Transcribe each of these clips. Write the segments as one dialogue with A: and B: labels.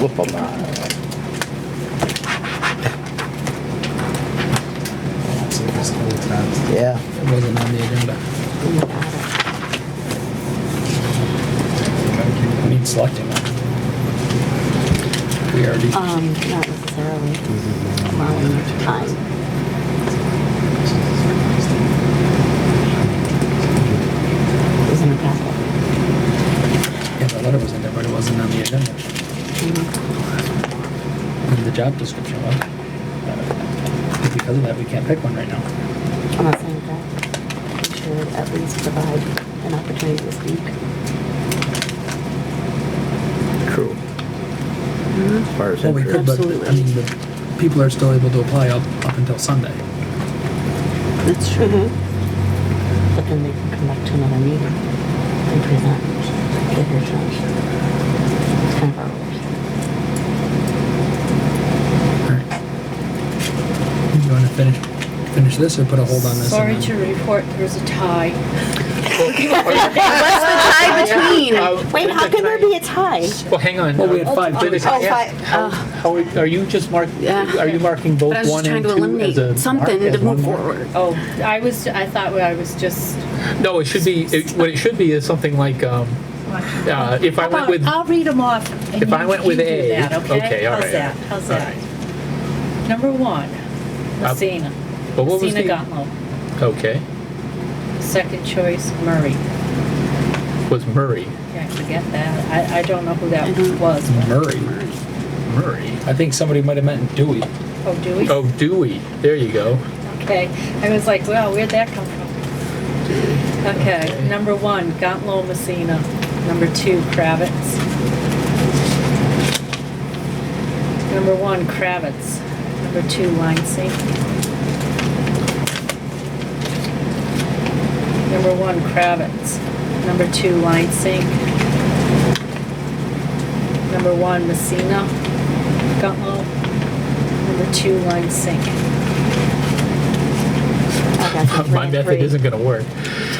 A: whoop 'em. uh,
B: So it was the whole time.
A: Yeah.
B: It wasn't on the agenda. I mean, selecting it. We already,
C: Um, not necessarily. Allowing you time. It was in the packet.
B: yeah, the letter was in there, but it wasn't on the agenda. And the job description was. Because of that, we can't pick one right now.
C: I'm not saying that. You should at least provide an opportunity to speak.
A: True. As far as
B: Well, we could,
A: interest.
B: but, I mean, the people are still able to apply up, up until Sunday.
C: That's true. But then they can come back to another meeting and present, give their judge. It's kind of our rules.
B: Alright. You wanna finish, finish this or put a hold on this? and
D: Sorry
B: then-
D: to report, there's a tie.
C: Wait, how can there be a tie?
E: Well, hang on.
B: Well, we had five minutes.
E: Oh, How, are you just mark,
F: Yeah.
E: are you marking both
F: But I was
E: one
F: just trying
E: and two
F: to
E: as a
F: eliminate
E: mark?
F: something
E: as
F: to
E: one
F: move
E: mark?
F: forward.
D: Oh, I was, I thought I was just,
E: No, it should be, it- what it should be is something like, um, uh, if I went with,
D: I'll read them off. and
E: If I
D: you-
E: went with
D: you do
E: A,
D: that,
E: okay, all
D: How's
E: right,
D: that? How's that? Number one, Messina.
E: But what was
D: Messina
E: the-
D: Gutlow.
E: okay,
D: Second choice, Murray.
E: was Murray,
D: Yeah, forget that. I, I don't know who that was.
B: Murray.
E: Murray.
B: I think somebody might have meant Dewey.
D: Oh, Dewey?
E: Oh, Dewey, there you go.
D: Okay, I was like, wow, where'd that come from? Okay, number one, Gauntlet Messina. Number two, Kravitz. Number one, Kravitz. Number two, Lancey. Number one, Kravitz. Number two, Lansing. Number one, Messina. Gauntlet. Number two, Lansing.
C: Okay, so three
E: My
C: and
E: method
C: three.
E: isn't gonna work.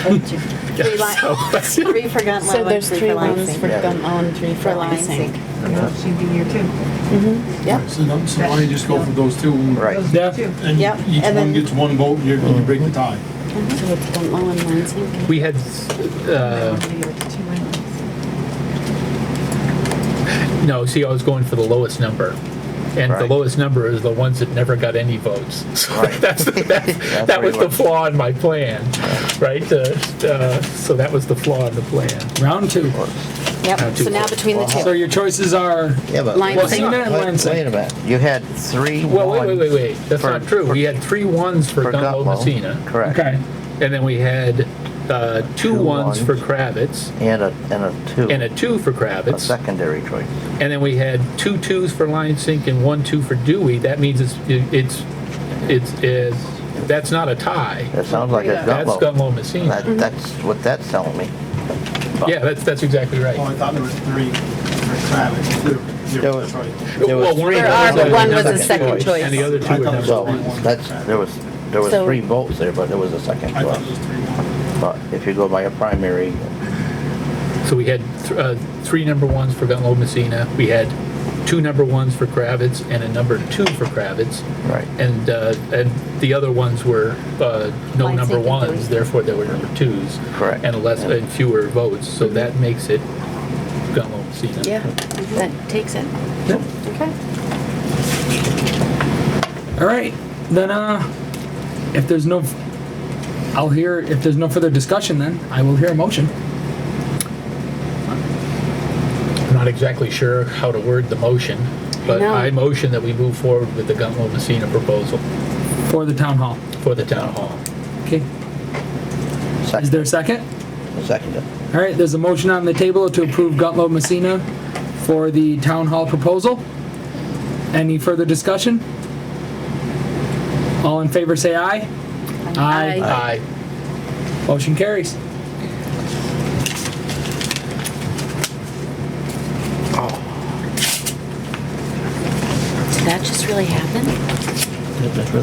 D: Told you.
C: Three li- three for Gunlow
F: So
C: and
F: there's
C: three
F: three
C: for
F: ones
C: Lansing.
F: for Guntlow, three for
C: For Lansing.
F: Lansing.
G: Yeah, she'd be here too.
C: Yep,
H: So don't- so why don't you just go for those two? and-
A: Right.
G: Those
B: Yeah.
G: two.
H: And
C: Yep,
H: each
C: and
H: one
C: then-
H: gets one vote, and you're- you break the tie.
F: So it's Guntlow and Lansing.
E: We had,
G: Might
E: uh,
G: wanna leave it to two islands.
E: no, see, I was going for the lowest number. And the
A: Right.
E: lowest number is the ones that never got any votes. So
A: Right.
E: that's, that's- that
A: where
E: was
A: you
E: the
A: went.
E: flaw in my plan, right? Uh, uh, So that was the flaw in the plan.
B: Round two.
E: Now
F: Yep,
E: two
F: so now
E: for-
F: between the
B: So
F: two.
B: your choices are,
A: Yeah, but.
F: Line
A: wait-
F: six. Well,
B: Messina and
A: Wait wait
B: Lansing.
A: a minute, you had three ones.
E: Well, wait, wait, wait, wait. That's
A: for-
E: not true. we had three ones for,
A: for
E: Gunlow
A: Gutlow.
E: Messina,
A: Correct.
B: Okay.
E: and then we had uh,
A: Two
E: two ones for
A: ones.
E: Kravitz,
A: And a, and a two.
E: and a two for
A: A
E: Kravitz,
A: secondary choice.
E: and then we had two twos for Lion Sink and one two for Dewey. That means it's it, it's it's is that's not a tie.
A: That sounds like a
E: That's
A: gumbo.
E: Gunlow Messina.
A: That,
F: Mm-hmm.
A: that's what that's telling me.
E: yeah, that's that's exactly right.
H: Oh, I thought there was three for Kravitz, two,
A: There
H: zero,
A: was-
H: sorry.
A: There was
E: well, one,
A: three
E: of
F: There
A: votes
F: are, but
A: and
F: one was
A: another
F: a second choice.
E: and the other two
H: I
E: were
H: thought it was
E: never.
A: So, that's, there was, there was
F: So-
A: three votes there, but there was a second
H: I thought it
A: choice.
H: was three.
A: But if you go by a primary,
E: So we had th- uh, three number ones for Gunlow Messina. We had two number ones for Kravitz and a number two for Kravitz.
A: Right.
E: And uh, and the other ones were uh, no
C: Line
E: number
C: sync and
E: ones,
C: those.
E: therefore there were number twos.
A: Correct.
E: And less
A: Yeah.
E: and fewer votes. So that makes it Gunlow Messina.
F: Yeah, that takes it. Okay.
B: all right, then, uh, if there's no, I'll hear, if there's no further discussion, then I will hear a motion.
E: I'm not exactly sure how to word the motion, but
F: know.
E: I motion that we move forward with the Gunlow Messina proposal
B: For the town hall.
E: for the town hall.
B: Okay, is there a
A: second,
B: second?
A: seconded.
B: All right, there's a motion on the table to approve Gutlow Messina for the town hall proposal. Any further discussion? All in favor, say aye.
F: Aye.
E: Aye.
B: Motion carries.
F: Did that just really happen?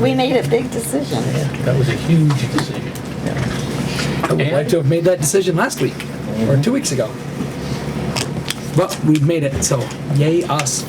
C: we made a big decision.
E: That was a huge decision.
B: I would like
E: And-
B: to have made that decision last week or two weeks ago. But we've made it, so yay us.